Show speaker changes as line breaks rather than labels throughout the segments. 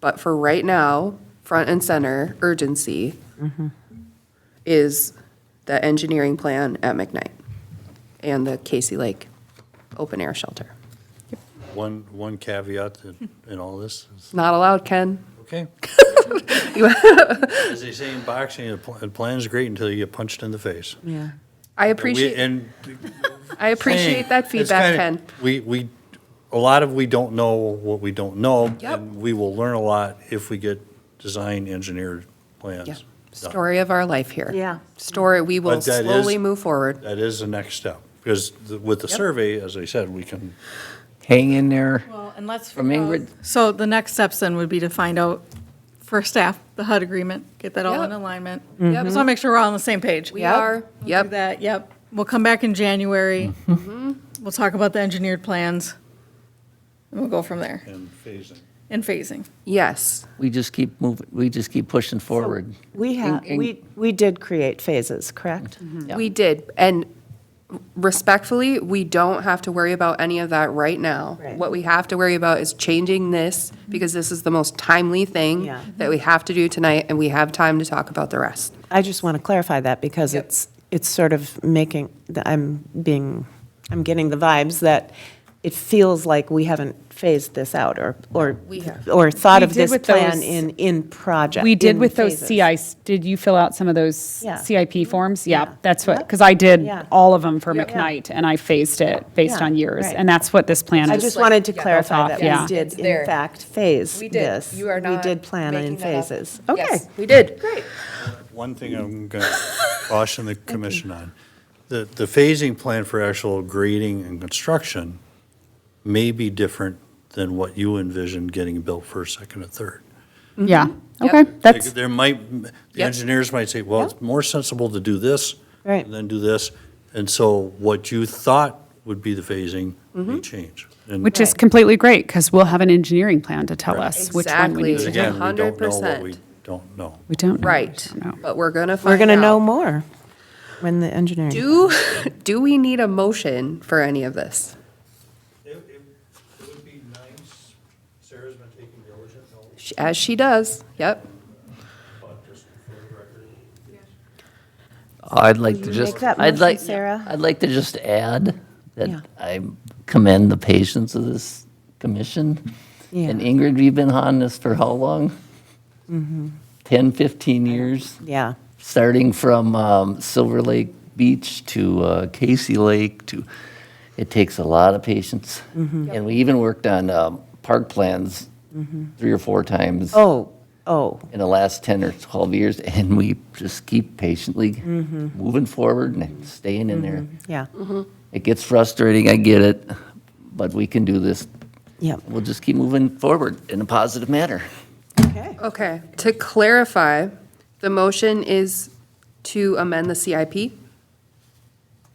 But for right now, front and center urgency is the engineering plan at McKnight and the Casey Lake open air shelter.
One, one caveat in- in all this is,
Not allowed, Ken.
okay. As they say in boxing, a pl- a plan's great until you get punched in the face.
Yeah.
I
And we-
appreciate,
And
I appreciate that
saying, it's
feedback,
kinda-
Ken.
We, we, a lot of we don't know what we don't know.
Yep.
And we will learn a lot if we get design engineered
Yeah.
plans. done.
Story of our life here.
Yeah.
Story, we will
But that is-
slowly move forward.
That is the next step, because the- with the
Yep.
survey, as I said, we can,
Hang in there.
Well, and let's. uh,
From Ingrid.
So the next steps then would be to find out for staff, the HUD agreement, get that all in
Yep.
alignment.
Yep.
Just want to make sure we're all on the same page.
We are,
We'll do
yep,
that, yep. We'll come back in January. We'll talk about the engineered plans. And we'll go from there
and phasing.
in phasing.
yes.
We just keep moving, we just keep pushing forward.
We have,
And- and-
we, we did create phases, correct? Yeah.
We did, and respectfully, we don't have to worry about any of that right now.
Right. Mm-hmm.
What we have to worry about is changing this, because this is the most timely thing
Yeah.
that we have to do tonight, and we have time to talk about the rest.
I just want to clarify that because it's, it's sort of making, that I'm being, I'm getting the vibes that it feels like we haven't phased this out or, or,
We have.
or thought
We
of
did
this
with
plan
those-
in, in project.
We did
in
with those
phases.
CIs, did you fill out some of those
Yeah.
CIP forms? Yeah, that's what,
Yep.
because I did
Yeah.
all of them for
Yeah.
McKnight, and I phased it based
Yeah.
on years,
Right.
and that's what this plan is.
I just wanted to
yeah,
clarify
off,
that
yeah.
we did
It's there.
in fact phase
We did.
this.
You are not
We did plan in
making that up.
phases. Okay.
Yes, we did.
Great.
One thing I'm going to caution the commission on, the, the phasing plan for actual grading and construction may be different than what you envision getting built first, second, and third.
Mm-hmm. Yeah, okay,
Like,
that's,
There might, the
Yep.
engineers might say, well, it's more sensible to do this
Right.
than do this. And so what you thought would be the phasing may change. And
which is completely great, because we'll have an engineering plan to tell us which one we need
Exactly.
to do.
Again, we don't know what
100%.
we don't know.
We don't know. We
Right,
just don't know.
but we're gonna find
We're going to know
out.
more when the engineering.
Do, do we need a motion for any of this?
It would be nice, Sarah's been taking diligent notes,
She- As she does, yep.
but just for the record,
I'd like
Will
to
you
just,
make that
I'd
motion,
like,
Sarah?
I'd like to just add
Yeah.
that I commend the patience of this commission. And
Yeah.
Ingrid, we've been on this for how long? 10, 15 years,
Mm-hmm. Yeah.
starting from um, Silver Lake Beach to uh, Casey Lake to, it takes a lot of patience.
Mm-hmm.
And we even worked on um, park plans three or four times.
Oh, oh.
in the last 10 or 12 years, and we just keep patiently
Mm-hmm.
moving forward and staying in there.
Yeah,
It gets frustrating, I get it, but we can do this.
Yep.
We'll just keep moving forward in a positive manner.
okay.
Okay, to clarify, the motion is to amend the CIP?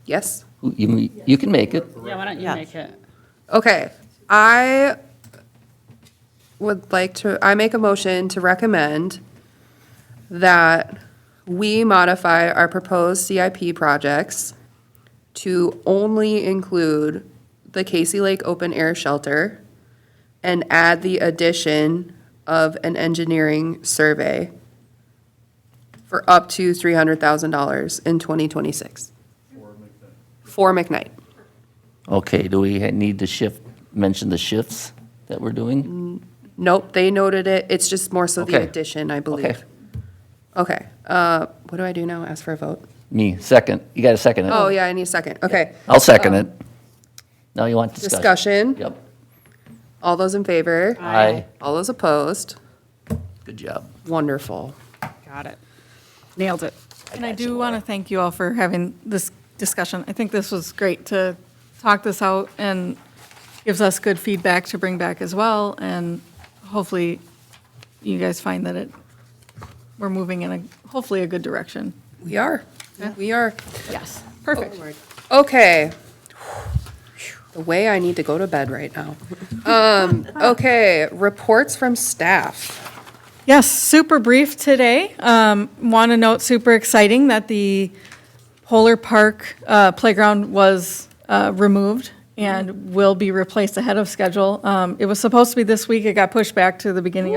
Yes?
You, you can make it.
Yeah, why don't you
Yeah.
make it?
Okay, I would like to, I make a motion to recommend that we modify our proposed CIP projects to only include the Casey Lake Open Air Shelter and add the addition of an engineering survey for up to $300,000 in 2026. For McKnight.
Okay, do we need to shift, mention the shifts that we're doing?
Nope, they noted it. It's just more so the
Okay.
addition, I
Okay,
believe. Okay, uh, what do I do now? Ask for a vote?
me, second. You got a second it?
Oh, yeah, I need a second. Okay,
I'll second it. Now you want discussion?
discussion.
Yep.
All those in favor?
Aye.
All those opposed?
Good job.
Wonderful.
Got it. Nailed it.
And I do want to thank you all for having this discussion. I think this was great to talk this out and gives us good feedback to bring back as well. And hopefully you guys find that it, we're moving in a, hopefully a good direction.
We are, we are.
Yes. Perfect.
Okay. The way I need to go to bed right now. Um, okay, reports from staff.
Yes, super brief today. Um, Want to note, super exciting that the Polar Park uh, playground was uh, removed and will be replaced ahead of schedule. Um, It was supposed to be this week, it got pushed back to the beginning of.